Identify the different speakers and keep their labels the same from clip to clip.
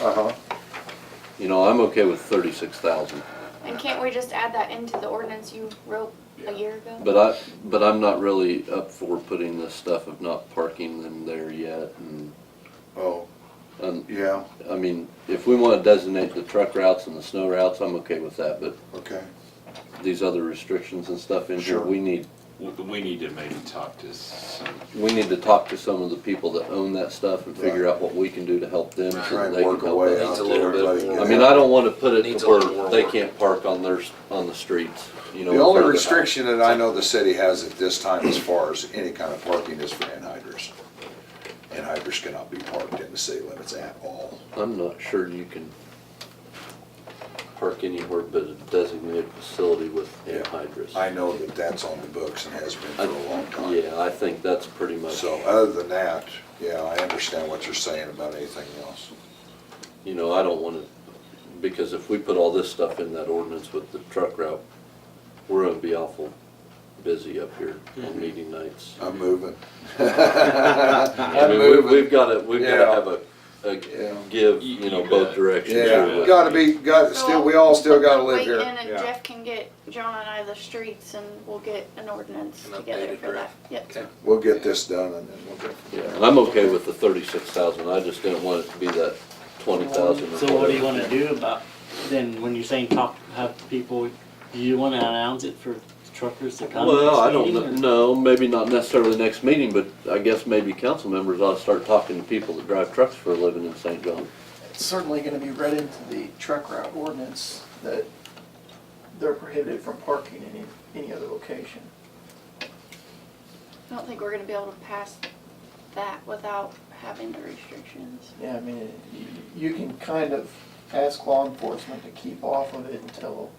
Speaker 1: Uh-huh.
Speaker 2: You know, I'm okay with thirty-six thousand,
Speaker 3: And can't we just add that into the ordinance you wrote a year ago?
Speaker 2: but I, but I'm not really up for putting this stuff of not parking them there yet and,
Speaker 1: Oh,
Speaker 2: and,
Speaker 1: yeah,
Speaker 2: I mean, if we wanna designate the truck routes and the snow routes, I'm okay with that, but
Speaker 1: okay.
Speaker 2: these other restrictions and stuff in here,
Speaker 1: Sure.
Speaker 2: we need,
Speaker 4: We- We need to maybe talk to some,
Speaker 2: we need to talk to some of the people that own that stuff and figure out what we can do to help them so
Speaker 1: Try
Speaker 2: that
Speaker 1: and
Speaker 2: they can
Speaker 1: work a
Speaker 2: help
Speaker 1: way
Speaker 2: us.
Speaker 1: out
Speaker 5: Needs a
Speaker 1: that
Speaker 5: little bit
Speaker 1: everybody
Speaker 5: more.
Speaker 1: gets
Speaker 2: I
Speaker 1: it.
Speaker 2: mean, I don't wanna put it
Speaker 5: Needs
Speaker 2: to
Speaker 5: a little
Speaker 2: where
Speaker 5: more
Speaker 2: they
Speaker 5: work.
Speaker 2: can't park on their, on the streets, you know.
Speaker 1: The only
Speaker 2: in front of house.
Speaker 1: restriction that I know the city has at this time as far as any kind of parking is for anhydrous. Anhydrous cannot be parked in the city limits at all.
Speaker 2: I'm not sure you can park anywhere but a designated facility with
Speaker 1: Yeah.
Speaker 2: anhydrous.
Speaker 1: I know that that's on the books and has been for a long time.
Speaker 2: Yeah, I think that's pretty much,
Speaker 1: So uh, other than that, yeah, I understand what you're saying about anything else.
Speaker 2: you know, I don't wanna, because if we put all this stuff in that ordinance with the truck route, we're gonna be awful busy up here
Speaker 1: Mm-hmm.
Speaker 2: on meeting nights.
Speaker 1: I'm moving.
Speaker 2: I
Speaker 1: I'm
Speaker 2: mean, we-
Speaker 1: moving.
Speaker 2: We've gotta, we've gotta
Speaker 1: Yeah.
Speaker 2: have a,
Speaker 1: Yeah.
Speaker 2: a give, you know, both directions.
Speaker 1: Yeah,
Speaker 2: or
Speaker 1: gotta be, got, still, we all still gotta live
Speaker 3: Wait,
Speaker 1: here.
Speaker 3: and then
Speaker 5: Yeah.
Speaker 3: Jeff can get John and I the streets and we'll get an ordinance
Speaker 5: An
Speaker 3: together
Speaker 5: updated
Speaker 3: for that.
Speaker 5: draft.
Speaker 3: Yep.
Speaker 5: Okay.
Speaker 1: We'll get this done and then we'll go. from
Speaker 2: Yeah,
Speaker 1: there.
Speaker 2: I'm okay with the thirty-six thousand, I just didn't want it to be that twenty thousand.
Speaker 6: So what do you wanna do about, then when you're saying talk, have people, do you wanna announce it for truckers to come? to this
Speaker 2: Well, I don't know,
Speaker 6: meeting, or-
Speaker 2: no, maybe not necessarily the next meeting, but I guess maybe council members ought to start talking to people that drive trucks for a living in St. John.
Speaker 7: It's certainly gonna be read into the truck route ordinance that they're prohibited from parking in any, any other location.
Speaker 3: I don't think we're gonna be able to pass that without having the restrictions.
Speaker 7: Yeah, I mean, it- you you can kind of ask law enforcement to keep off of it until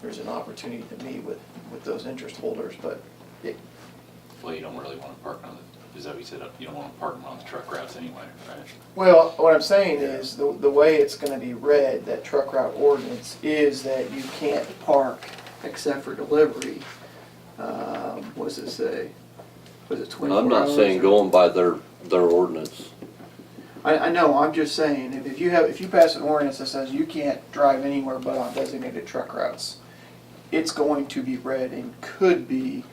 Speaker 7: there's an opportunity to meet with, with those interest holders, but it,
Speaker 4: well, you don't really wanna park on the, is that what you said, you don't wanna park them on the truck routes anyway, right?
Speaker 7: Well, what I'm saying is, the, the way it's gonna be read, that truck route ordinance, is that you can't park except for delivery. Um, what does it say? Was it
Speaker 2: And
Speaker 7: twenty-four
Speaker 2: I'm not
Speaker 7: hours
Speaker 2: saying
Speaker 7: or-
Speaker 2: going by their, their ordinance.
Speaker 7: I, I know, I'm just saying, if, if you have, if you pass an ordinance that says you can't drive anywhere but on designated truck routes, it's going to be read and could be,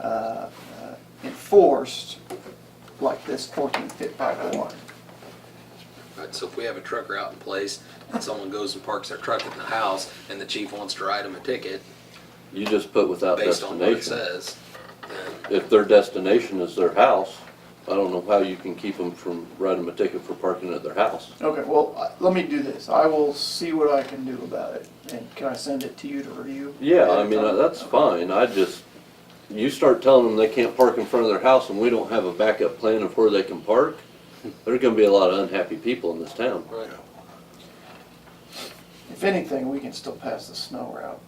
Speaker 7: uh, uh, enforced like this fourteen fit five oh one.
Speaker 5: Right, so if we have a trucker out in place and someone goes and parks their truck in the house and the chief wants to write them a ticket
Speaker 2: You just put without
Speaker 5: based on what it
Speaker 2: destination.
Speaker 5: says, then
Speaker 2: If their destination is their house, I don't know how you can keep them from writing a ticket for parking at their house.
Speaker 7: Okay, well, I- let me do this. I will see what I can do about it. And can I send it to you to review?
Speaker 2: Yeah, I mean, uh, that's fine, I just, you start telling them they can't park in front of their house and we don't have a backup plan of where they can park, there're gonna be a lot of unhappy people in this town.
Speaker 5: right,
Speaker 7: If anything, we can still pass the snow route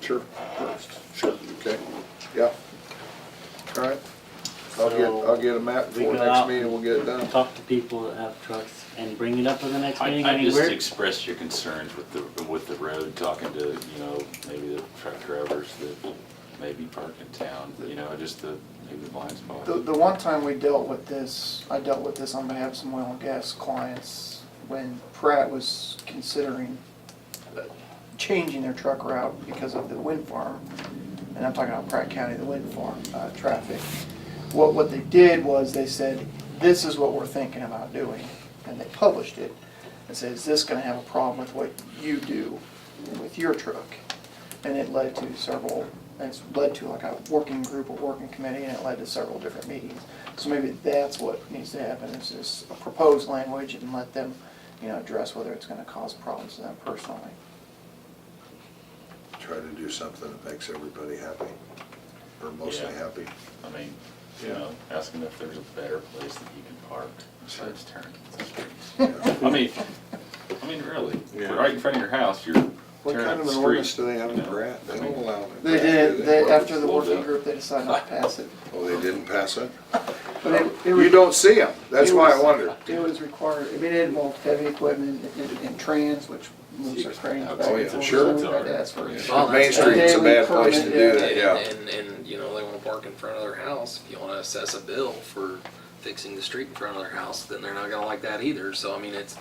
Speaker 1: Sure,
Speaker 7: first.
Speaker 1: sure, okay, yeah. All right, I'll get, I'll get a map
Speaker 6: We
Speaker 1: for
Speaker 6: go
Speaker 1: next
Speaker 6: out.
Speaker 1: meeting, we'll get it done.
Speaker 6: Talk to people that have trucks and bring it up for the next
Speaker 4: I,
Speaker 6: meeting,
Speaker 4: I
Speaker 6: I mean,
Speaker 4: just
Speaker 6: we're,
Speaker 4: expressed your concerns with the, with the road, talking to, you know, maybe the truck drivers that maybe park in town, you know, just the, maybe the blind spot.
Speaker 7: The, the one time we dealt with this, I dealt with this on behalf of some oil and gas clients when Pratt was considering uh, changing their truck route because of the wind farm. And I'm talking about Pratt County, the wind farm, uh, traffic. What, what they did was they said, this is what we're thinking about doing. And they published it and said, is this gonna have a problem with what you do with your truck? And it led to several, and it's led to like a working group or working committee, and it led to several different meetings. So maybe that's what needs to happen, is just a proposed language and let them, you know, address whether it's gonna cause problems to them personally.
Speaker 1: Try to do something that makes everybody happy, or mostly
Speaker 4: Yeah.
Speaker 1: happy.
Speaker 4: I mean, you know, ask them if there's a better place that you can park besides turning.
Speaker 1: Yeah.
Speaker 4: I mean, I mean, really, if you're
Speaker 1: Yeah.
Speaker 4: right in front of your house, you're turning
Speaker 1: What kind
Speaker 4: up
Speaker 1: of an
Speaker 4: the street,
Speaker 1: ordinance do they have
Speaker 4: you
Speaker 1: in
Speaker 4: know,
Speaker 1: Pratt? They
Speaker 4: I
Speaker 1: don't
Speaker 4: mean,
Speaker 1: allow them. in
Speaker 7: They
Speaker 1: Pratt, do
Speaker 7: did, they, after the
Speaker 4: Slow
Speaker 7: working
Speaker 4: down.
Speaker 7: group, they decided not to pass it.
Speaker 1: Oh, they didn't pass it?
Speaker 7: But it- it
Speaker 1: You
Speaker 7: was-
Speaker 1: don't see them, that's
Speaker 7: it
Speaker 1: why I
Speaker 7: was-
Speaker 1: wondered.
Speaker 7: It was required, I mean, it involved heavy equipment and, and trans, which moves their cranes back
Speaker 1: Oh, yeah,
Speaker 7: and forth.
Speaker 1: sure.
Speaker 7: So we had to ask for it.
Speaker 5: Well,
Speaker 1: Main
Speaker 5: that's-
Speaker 1: Street's a bad place to do that, yeah.
Speaker 5: And, and, and, you know, they wanna park in front of their house, if you wanna assess a bill for fixing the street in front of their house, then they're not gonna like that either, so I mean, it's,